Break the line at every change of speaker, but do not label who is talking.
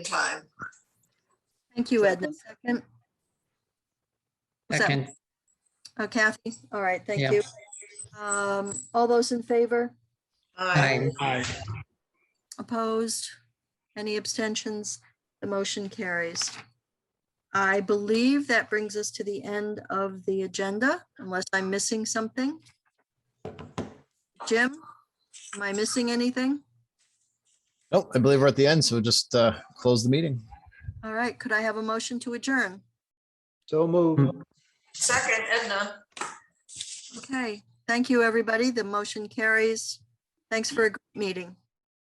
Thank you, Edna. Second. Was that-
Second,
uh, Kathy, all right, thank
Yeah.
you. Um, All those in favor,
aye,
Aye.
opposed, any abstentions? The motion carries. I believe that brings us to the end of the agenda, unless I'm missing something. Jim, am I missing anything?
Nope, I believe we're at the end, so just uh, close the meeting.
All right, could I have a motion to adjourn?
So move.
Second, Edna.
Okay, thank you, everybody. The motion carries. Thanks for a great meeting.